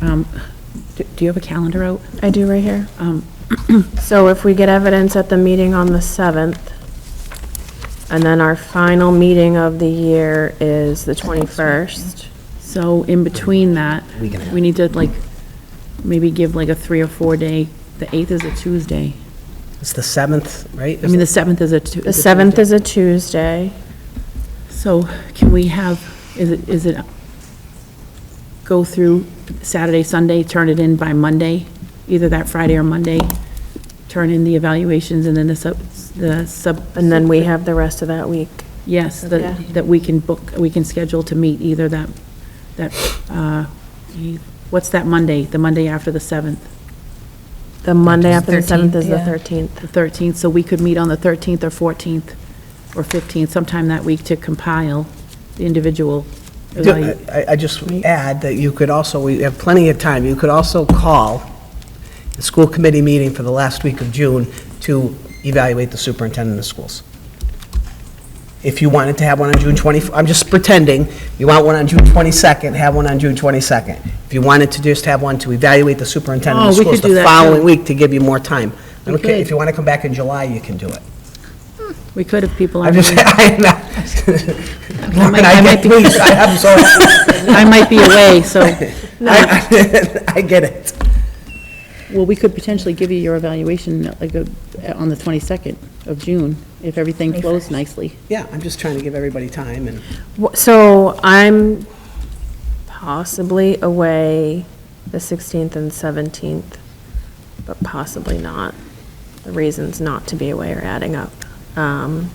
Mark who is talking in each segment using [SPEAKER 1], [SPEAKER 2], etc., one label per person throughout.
[SPEAKER 1] um, do do you have a calendar out?
[SPEAKER 2] I do right here.
[SPEAKER 1] Um,
[SPEAKER 2] So if we get evidence at the meeting on the 7th, and then our final meeting of the year is the 21st.
[SPEAKER 1] So in between that, we need to like, maybe give like a three or four day, the 8th is a Tuesday.
[SPEAKER 3] It's the 7th, right?
[SPEAKER 1] I mean, the 7th is a. Tu-
[SPEAKER 2] The
[SPEAKER 1] is a
[SPEAKER 2] 7th
[SPEAKER 1] Tuesday.
[SPEAKER 2] is a Tuesday.
[SPEAKER 1] So can we have, is it, is it, go through Saturday, Sunday, turn it in by Monday? Either that Friday or Monday, turn in the evaluations and then the sub, the sub.
[SPEAKER 2] And then we have the rest of that week.
[SPEAKER 1] Yes,
[SPEAKER 2] Yeah.
[SPEAKER 1] that, that we can book, we can schedule to meet either that, that, uh, what's that Monday, the Monday after the 7th,
[SPEAKER 2] The Monday after the 7th is the
[SPEAKER 4] 13th,
[SPEAKER 2] 13th.
[SPEAKER 1] the 13th, so we could meet on the 13th or 14th or 15th, sometime that week to compile the individual.
[SPEAKER 3] Do-
[SPEAKER 1] evalu-
[SPEAKER 3] I, I just add that you could also, we have plenty of time, you could also call the school committee meeting for the last week of June to evaluate the superintendent of schools. If you wanted to have one on June 20, I'm just pretending, you want one on June 22nd, have one on June 22nd. If you wanted to just have one to evaluate the superintendent of
[SPEAKER 1] Oh, we could
[SPEAKER 3] schools
[SPEAKER 1] do
[SPEAKER 3] the
[SPEAKER 1] that,
[SPEAKER 3] following
[SPEAKER 1] too.
[SPEAKER 3] week to give you more time. I
[SPEAKER 1] We
[SPEAKER 3] don't care,
[SPEAKER 1] could.
[SPEAKER 3] if you want to come back in July, you can do it.
[SPEAKER 1] We could if people
[SPEAKER 3] I'm
[SPEAKER 1] aren't.
[SPEAKER 3] just,
[SPEAKER 1] here.
[SPEAKER 3] I'm not.
[SPEAKER 1] I might-
[SPEAKER 3] Can I
[SPEAKER 1] I
[SPEAKER 3] get
[SPEAKER 1] might be-
[SPEAKER 3] these? I- I'm sorry.
[SPEAKER 1] I might be away, so,
[SPEAKER 3] I I get it.
[SPEAKER 1] well, we could potentially give you your evaluation like uh, on the 22nd of June, if everything flows nicely.
[SPEAKER 3] Yeah, I'm just trying to give everybody time and.
[SPEAKER 2] Wh- So I'm possibly away the 16th and 17th, but possibly not. The reasons not to be away are adding up. Um,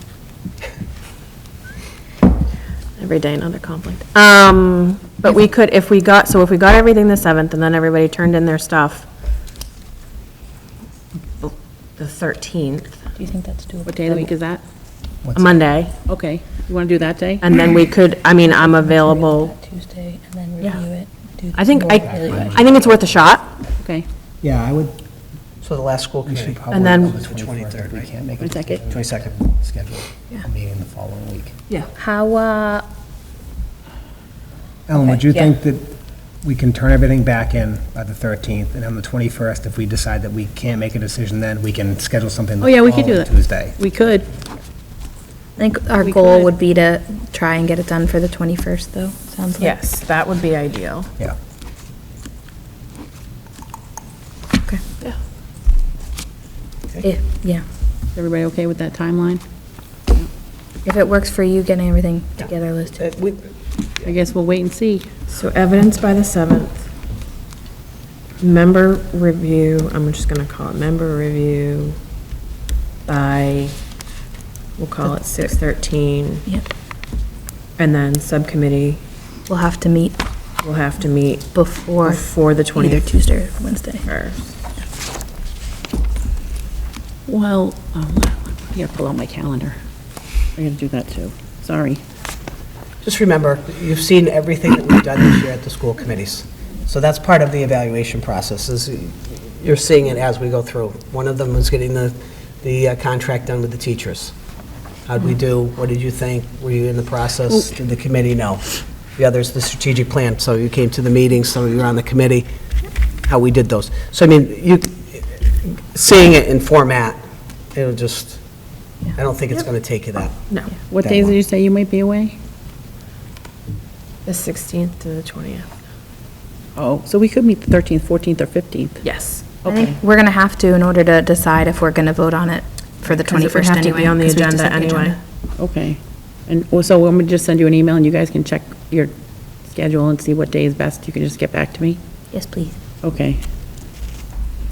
[SPEAKER 2] Every day another conflict. Um, But we could, if we got, so if we got everything the 7th and then everybody turned in their stuff the 13th,
[SPEAKER 4] Do you think that's doable?
[SPEAKER 1] What day of the week is that?
[SPEAKER 2] a Monday,
[SPEAKER 1] Okay, you want to do that day?
[SPEAKER 2] and then we could, I mean, I'm available.
[SPEAKER 4] Tuesday, and then
[SPEAKER 2] Yeah.
[SPEAKER 4] review it. do
[SPEAKER 2] I think,
[SPEAKER 4] more
[SPEAKER 2] I,
[SPEAKER 4] evaluation.
[SPEAKER 2] I think it's worth a shot.
[SPEAKER 1] Okay,
[SPEAKER 5] Yeah, I would.
[SPEAKER 3] So the last school committee.
[SPEAKER 2] And then-
[SPEAKER 3] The 23rd,
[SPEAKER 5] We
[SPEAKER 3] right?
[SPEAKER 5] can't make
[SPEAKER 1] one
[SPEAKER 5] it.
[SPEAKER 1] second.
[SPEAKER 3] 22nd.
[SPEAKER 5] Schedule a meeting the following week.
[SPEAKER 4] How, uh,
[SPEAKER 5] Ellen, would
[SPEAKER 4] Okay,
[SPEAKER 5] you
[SPEAKER 4] yeah.
[SPEAKER 5] think that we can turn everything back in by the 13th, and on the 21st, if we decide that we can't make a decision then, we can schedule something
[SPEAKER 1] Oh,
[SPEAKER 5] the
[SPEAKER 1] yeah, we could do
[SPEAKER 5] following
[SPEAKER 1] that.
[SPEAKER 5] Tuesday?
[SPEAKER 1] We could,
[SPEAKER 4] I think our
[SPEAKER 1] We
[SPEAKER 4] goal
[SPEAKER 1] could.
[SPEAKER 4] would be to try and get it done for the 21st, though, sounds like.
[SPEAKER 2] Yes, that would be ideal.
[SPEAKER 5] Yeah.
[SPEAKER 4] Okay. If, yeah,
[SPEAKER 1] Is everybody okay with that timeline?
[SPEAKER 4] if it works for you, getting everything together, Liz, too.
[SPEAKER 3] Uh, we-
[SPEAKER 1] I guess we'll wait and see.
[SPEAKER 2] So evidence by the 7th. Member review, I'm just going to call it member review by, we'll call it 6:13.
[SPEAKER 4] Yep.
[SPEAKER 2] And then subcommittee
[SPEAKER 4] We'll have to meet
[SPEAKER 2] will have to meet
[SPEAKER 4] before
[SPEAKER 2] before the
[SPEAKER 4] either
[SPEAKER 2] 21st.
[SPEAKER 4] Tuesday or Wednesday.
[SPEAKER 1] Well, um, I gotta pull out my calendar. I gotta do that too, sorry.
[SPEAKER 3] Just remember, you've seen everything that we've done this year at the school committees. So that's part of the evaluation process, is you're seeing it as we go through. One of them was getting the, the uh, contract done with the teachers. How'd we do? What did you think? Were you in the process? Did the committee know? The other's the strategic plan, so you came to the meeting, some of you were on the committee, how we did those. So I mean, you, seeing it in format, it'll just, I don't think it's going to take you that.
[SPEAKER 2] No,
[SPEAKER 1] What
[SPEAKER 3] That
[SPEAKER 1] days
[SPEAKER 3] one.
[SPEAKER 1] did you say you might be away?
[SPEAKER 2] the 16th to the 20th.
[SPEAKER 1] Oh, so we could meet the 13th, 14th, or 15th.
[SPEAKER 2] Yes.
[SPEAKER 4] I think we're gonna have to in order to decide if we're gonna vote on it for the 21st
[SPEAKER 2] Because it would
[SPEAKER 4] anyway.
[SPEAKER 2] have to be on the
[SPEAKER 4] 'cause we have to
[SPEAKER 2] agenda
[SPEAKER 4] set the
[SPEAKER 2] anyway.
[SPEAKER 4] agenda.
[SPEAKER 1] Okay. And well, so I'm gonna just send you an email and you guys can check your schedule and see what day is best. You can just get back to me?
[SPEAKER 4] Yes, please.
[SPEAKER 1] Okay,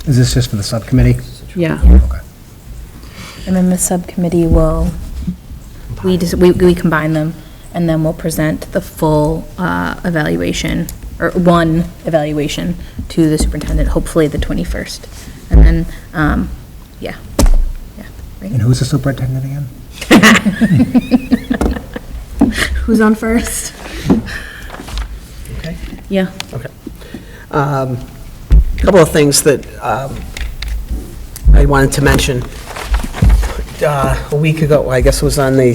[SPEAKER 5] Is this just for the subcommittee?
[SPEAKER 1] yeah.
[SPEAKER 5] Okay.
[SPEAKER 4] And then the subcommittee will, we just, we, we combine them, and then we'll present the full, uh, evaluation, or one evaluation to the superintendent, hopefully the 21st. And then, um, yeah, yeah.
[SPEAKER 5] And who's the superintendent again?
[SPEAKER 4] Who's on first?
[SPEAKER 3] Okay.
[SPEAKER 1] Yeah,
[SPEAKER 3] Um, Couple of things that um, I wanted to mention. Uh, A week ago, I guess it was on the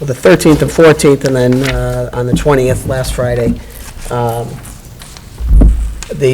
[SPEAKER 3] well, the 13th and 14th, and then uh, on the 20th, last Friday, um,